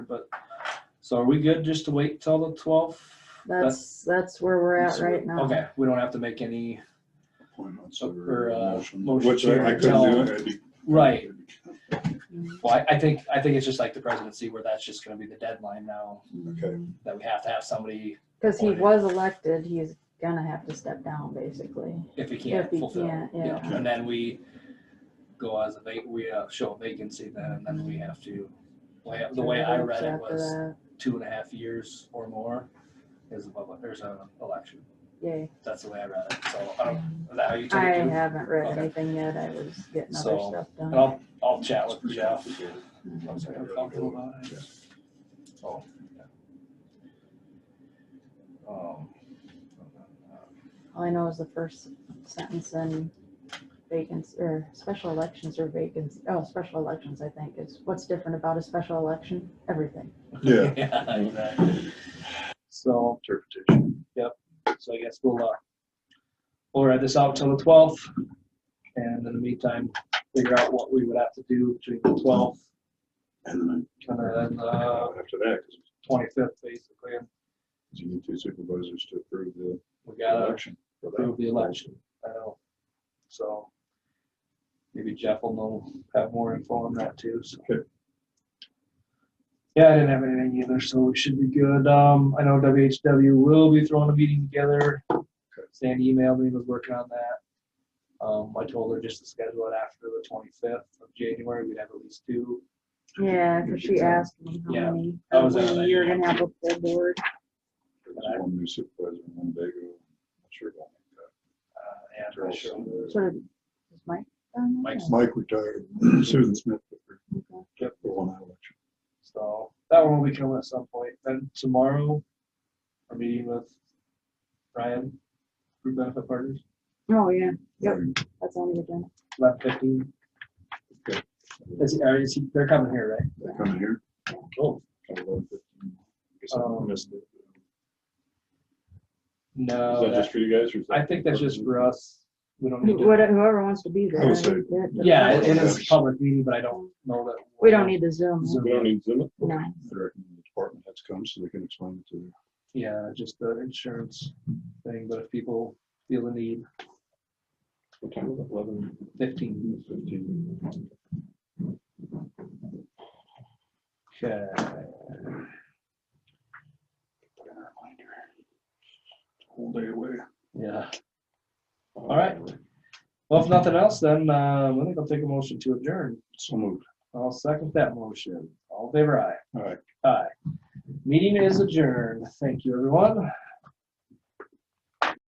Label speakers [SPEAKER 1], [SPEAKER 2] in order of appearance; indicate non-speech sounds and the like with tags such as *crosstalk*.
[SPEAKER 1] but, so are we good just to wait till the twelfth?
[SPEAKER 2] That's, that's where we're at right now.
[SPEAKER 1] Okay, we don't have to make any,
[SPEAKER 3] Appointments
[SPEAKER 1] or, uh,
[SPEAKER 3] motion.
[SPEAKER 1] motion.
[SPEAKER 4] Which I I
[SPEAKER 1] until-
[SPEAKER 4] couldn't do
[SPEAKER 3] That'd be-
[SPEAKER 1] Right, well, I, I think, I think it's just like the presidency where that's just gonna be the deadline now,
[SPEAKER 4] Okay.
[SPEAKER 1] that we have to have somebody,
[SPEAKER 2] Cause he was elected, he's gonna have to step down, basically.
[SPEAKER 1] if we can't
[SPEAKER 2] If we
[SPEAKER 1] fulfill.
[SPEAKER 2] can't, yeah.
[SPEAKER 1] And then we go as a vac, we uh, show a vacancy then, and then we have to, way- the way I read it
[SPEAKER 2] After
[SPEAKER 1] was
[SPEAKER 2] that,
[SPEAKER 1] two and a half years or more is a public, there's an election.
[SPEAKER 2] Yay,
[SPEAKER 1] That's the way I read it, so I don't, is that how you
[SPEAKER 2] I
[SPEAKER 1] took it? too?
[SPEAKER 2] haven't read
[SPEAKER 1] Okay.
[SPEAKER 2] anything yet, I was getting other
[SPEAKER 1] So,
[SPEAKER 2] stuff
[SPEAKER 1] And
[SPEAKER 2] done.
[SPEAKER 1] I'll, I'll chat with Jeff.
[SPEAKER 2] Mhm.
[SPEAKER 1] Looks like I'm comfortable about it. So, Oh, yeah. Um,
[SPEAKER 2] All I know is the first sentence in vacancy, or special elections or vacancy, oh, special elections, I think, is what's different about a special election? Everything.
[SPEAKER 4] Yeah,
[SPEAKER 1] *laughs* *laughs* Yeah, exactly. So,
[SPEAKER 3] Interpretation.
[SPEAKER 1] so I guess we'll, uh, we'll ride this out till the twelfth. And in the meantime, figure out what we would have to do between the twelfth
[SPEAKER 3] And then
[SPEAKER 1] and then,
[SPEAKER 4] Uh,
[SPEAKER 1] uh,
[SPEAKER 4] after that, 'cause
[SPEAKER 1] twenty-fifth, basically. and
[SPEAKER 4] you need two supervisors to approve the
[SPEAKER 1] We gotta
[SPEAKER 4] election. for that.
[SPEAKER 1] approve the election. I know. So maybe Jeff will know, have more info on that too, so.
[SPEAKER 4] Okay.
[SPEAKER 1] Yeah, I didn't have anything either, so we should be good. Um, I know WHW will be throwing a meeting together. Sandy emailed me, was working on that. Um, I told her just to schedule it after the twenty-fifth of January, we'd have at least two.
[SPEAKER 2] Yeah, cause she asked me
[SPEAKER 1] Yeah,
[SPEAKER 2] how many,
[SPEAKER 1] that
[SPEAKER 2] how
[SPEAKER 1] was another
[SPEAKER 2] many you're gonna have a full board.
[SPEAKER 4] There's One new supervisor, and one big, one. not sure about
[SPEAKER 1] Uh, yeah, I'm
[SPEAKER 4] that.
[SPEAKER 1] not sure.
[SPEAKER 2] Sort of, is Mike? done that?
[SPEAKER 1] Mike's-
[SPEAKER 4] Mike retired, *clears throat* Susan Smith. took her
[SPEAKER 2] Okay.
[SPEAKER 4] for one election.
[SPEAKER 1] So that one will be coming at some point. Then tomorrow, we're meeting with Ryan, group benefit partners,
[SPEAKER 2] Oh, yeah, Yep. that's on the agenda.
[SPEAKER 1] eleven fifteen. Is, are, is he, they're coming here, right?
[SPEAKER 4] They're Coming here.
[SPEAKER 1] Cool.
[SPEAKER 4] at 11:15. Guess I
[SPEAKER 1] Um,
[SPEAKER 4] missed it. Is
[SPEAKER 1] No,
[SPEAKER 4] that
[SPEAKER 1] that-
[SPEAKER 4] just for you guys or? is that-
[SPEAKER 1] uh, I think that's just for us. We don't need to.
[SPEAKER 2] Whatever, whoever wants to be there.
[SPEAKER 4] I would say-
[SPEAKER 2] that- that-
[SPEAKER 1] Yeah, it it is a public meeting, but I don't know that.
[SPEAKER 2] We don't need the Zoom.
[SPEAKER 1] Zoom.
[SPEAKER 4] We don't need Zoom.
[SPEAKER 2] No.
[SPEAKER 4] I reckon the department heads come so they can explain it to them.
[SPEAKER 1] Yeah, just the insurance thing, but if people feel the need,
[SPEAKER 4] What time is it? Eleven
[SPEAKER 1] fifteen.
[SPEAKER 4] fifteen?
[SPEAKER 1] Okay.
[SPEAKER 4] Whole day away.
[SPEAKER 1] Yeah. All right. Well, if nothing else, then, uh, I think I'll take a motion to adjourn.
[SPEAKER 4] So moved.
[SPEAKER 1] I'll second that motion. All in favor aye.
[SPEAKER 4] All right.
[SPEAKER 1] Aye. Meeting is adjourned. Thank you, everyone.